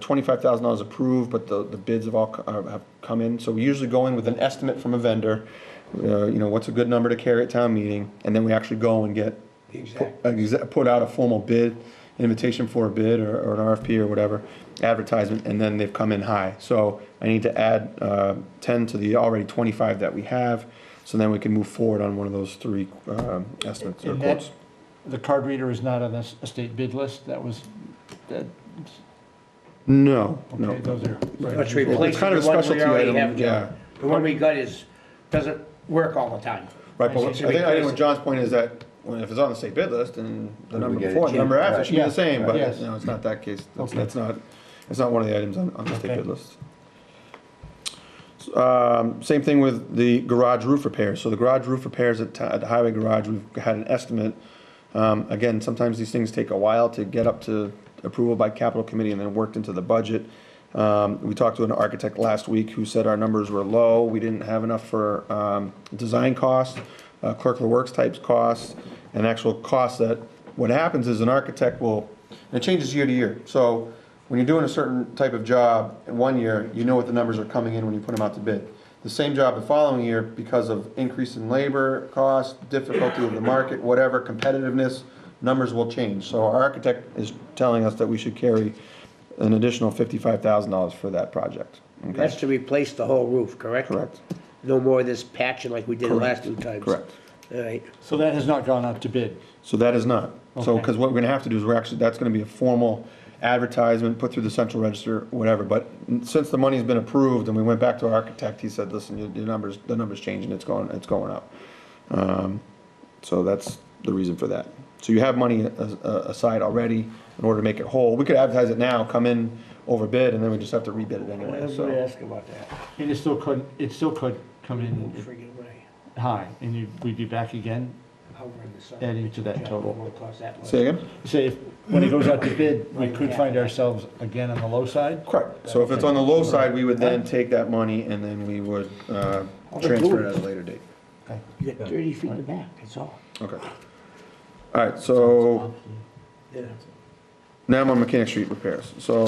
Twenty-five thousand dollars approved, but the, the bids have all, co- uh, have come in, so we usually go in with an estimate from a vendor. Uh, you know, what's a good number to carry at town meeting, and then we actually go and get. The exact. pu- exa- Put out a formal bid, invitation for a bid or, or an RFP or whatever, advertisement, and then they've come in high. So I need to add, uh, ten to the already twenty-five that we have, so then we can move forward on one of those three, um, estimates or And quotes. that, the card reader is not on the s- estate bid list, that was, that, No, no. okay, those are. right. Let's It's replace kind the of a one we specialty already item, have, yeah. Joe. The one we got is, doesn't work all the time. Right, but I I see. think, I think what John's point is that, well, if it's on the state bid list, and the number get it before, and the number cheaper, after right. should be the Yeah, same, but, yes. no, it's not that case, that's, Okay. that's not, it's not one of the items on, on the state Okay. bid list. S- Um, same thing with the garage roof repairs, so the garage roof repairs at, ti- at the highway garage, we've had an estimate. Um, again, sometimes these things take a while to get up to approval by capital committee and then worked into the budget. Um, we talked to an architect last week who said our numbers were low, we didn't have enough for, um, design costs, uh, clerk of the works types costs, and actual costs that, what happens is an architect will, and it changes year to year, so when you're doing a certain type of job in one year, you know what the numbers are coming in when you put them out to bid. The same job the following year, because of increase in labor costs, difficulty of the market, whatever, competitiveness, numbers will change. So our architect is telling us that we should carry an additional fifty-five thousand dollars for that project. Okay, That's to replace the whole roof, correct? correct, No more of this patching like we did the last two times. correct. All right. So that has not gone out to bid. So that is not. So, Okay. because what we're gonna have to do is we're actually, that's gonna be a formal advertisement, put through the central register, whatever. But since the money's been approved and we went back to our architect, he said, listen, your, your numbers, the number's changing, it's going, it's going up. Um, So that's the reason for that. So you have money a- a- aside already in order to make it whole. We could advertise it now, come in over bid, and then we just have to rebid it anyway, Everybody so. ask about that. And it still could, it still could come Oh, in friggin' way. high, and you, we'd be back again. I'll run this up. Adding to that Yeah, it total. won't cost that much. Say again? Say, if- when it goes out to bid, we could find ourselves again on the low side? Correct. So if it's on the low side, we would then take that money and then we would uh, transfer it at a later date. You got thirty feet in the back, that's all. Okay. All right, so Yeah. now I'm on Mechanic Street repairs. So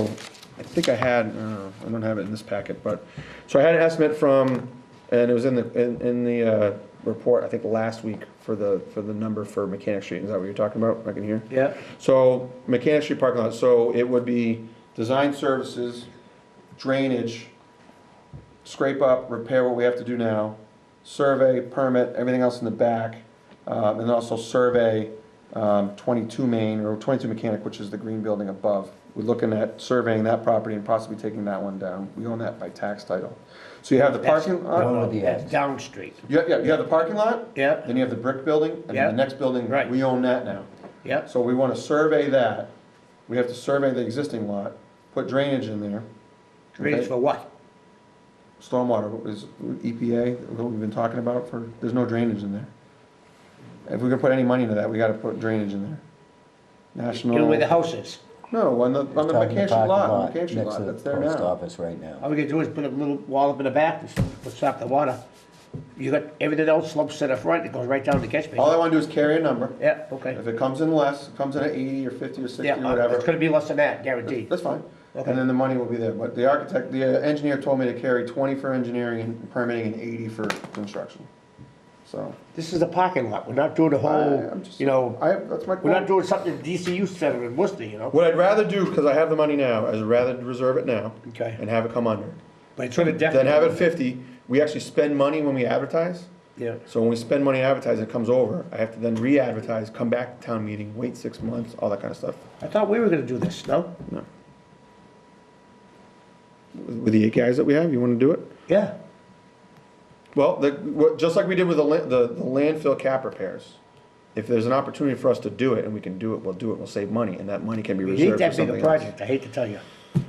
I think I had, uh, I don't have it in this packet, but, so I had an estimate from, and it was in the, in, in the, uh, report, I think last week for the, for the number for Mechanic Street. Is that what you're talking about? I can hear? Yeah. So Mechanic Street parking lot, so it would be design services, drainage, scrape up, repair what we have to do now, survey, permit, everything else in the back, um, and also survey um, 22 Main, or 22 Mechanic, which is the green building above. We're looking at surveying that property and possibly taking that one down. We own that by tax title. So you have the parking lot, with the That's ads. Down street. you have, yeah, you have the parking lot, Yeah, then you have the brick building, and Yeah. then the next building, Right. we own that now. yeah. So we want to survey that. We have to survey the existing lot, put drainage in there. Drainage okay? for what? Stormwater is EPA, what we've been talking about for, there's no drainage in there. If we're gonna put any money into that, we gotta put drainage in there. You know where the National, house is. no, on the, on the Talking vacation parking lot, on the vacation next lot, to the that's there Post now. office right now. All we gotta do is put a little wall up in the back to s- to stop the water. You got everything else slopes to the front, it goes right down the catch All I basin. wanna do is carry a number. Yeah, okay. If it comes in less, it comes in at eighty or fifty or sixty Yeah, or uh, it's whatever, gonna be less than that, guaranteed. that's fine. Okay. And then the money will be there. But the architect, the uh, engineer told me to carry twenty for engineering and permitting and eighty for construction. So. This is the parking lot, we're not doing the I- whole, I'm just- you know, I, that's my we're not point. doing something that DCU Center in Worcester, you know? What I'd rather do, because I have the money now, is rather reserve it now. Okay. And have it come under. But it's gonna Then have definitely. it fifty, we actually spend money when we advertise. Yeah. So when we spend money advertising, it comes over, I have to then re-advertise, come back to town meeting, wait six months, all that kind of stuff. I thought we were gonna do this, no? With the eight guys that we have, you wanna do it? Yeah. Well, the, what, just like we did with the, la- the the landfill cap repairs. If there's an opportunity for us to do it and we can do it, we'll do it, we'll save money, and that money can be You reserved need for that something big a else. project, I hate to tell you,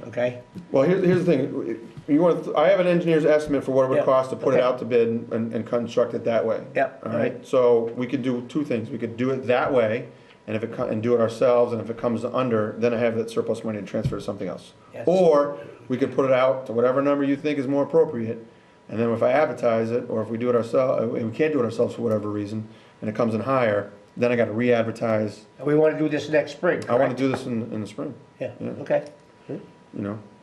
okay? Well, here's, here's the thing, you want, to- I have an engineer's estimate for what it Yeah, would cost to put it okay. out to bid and, and construct it that way. Yeah, All alright. right, so we could do two things, we could do it that way, and if it, co- and do it ourselves, and if it comes under, then I have that surplus money to transfer to something else. Yes. Or, we could put it out to whatever number you think is more appropriate, and then if I advertise it, or if we do it ourselves, uh, and we can't do it ourselves for whatever reason, and it comes in higher, then I gotta re-advertise, And we wanna do this next spring, I wanna correct? do Mm-hmm. this in, in the spring. Yeah, yeah. okay. you know?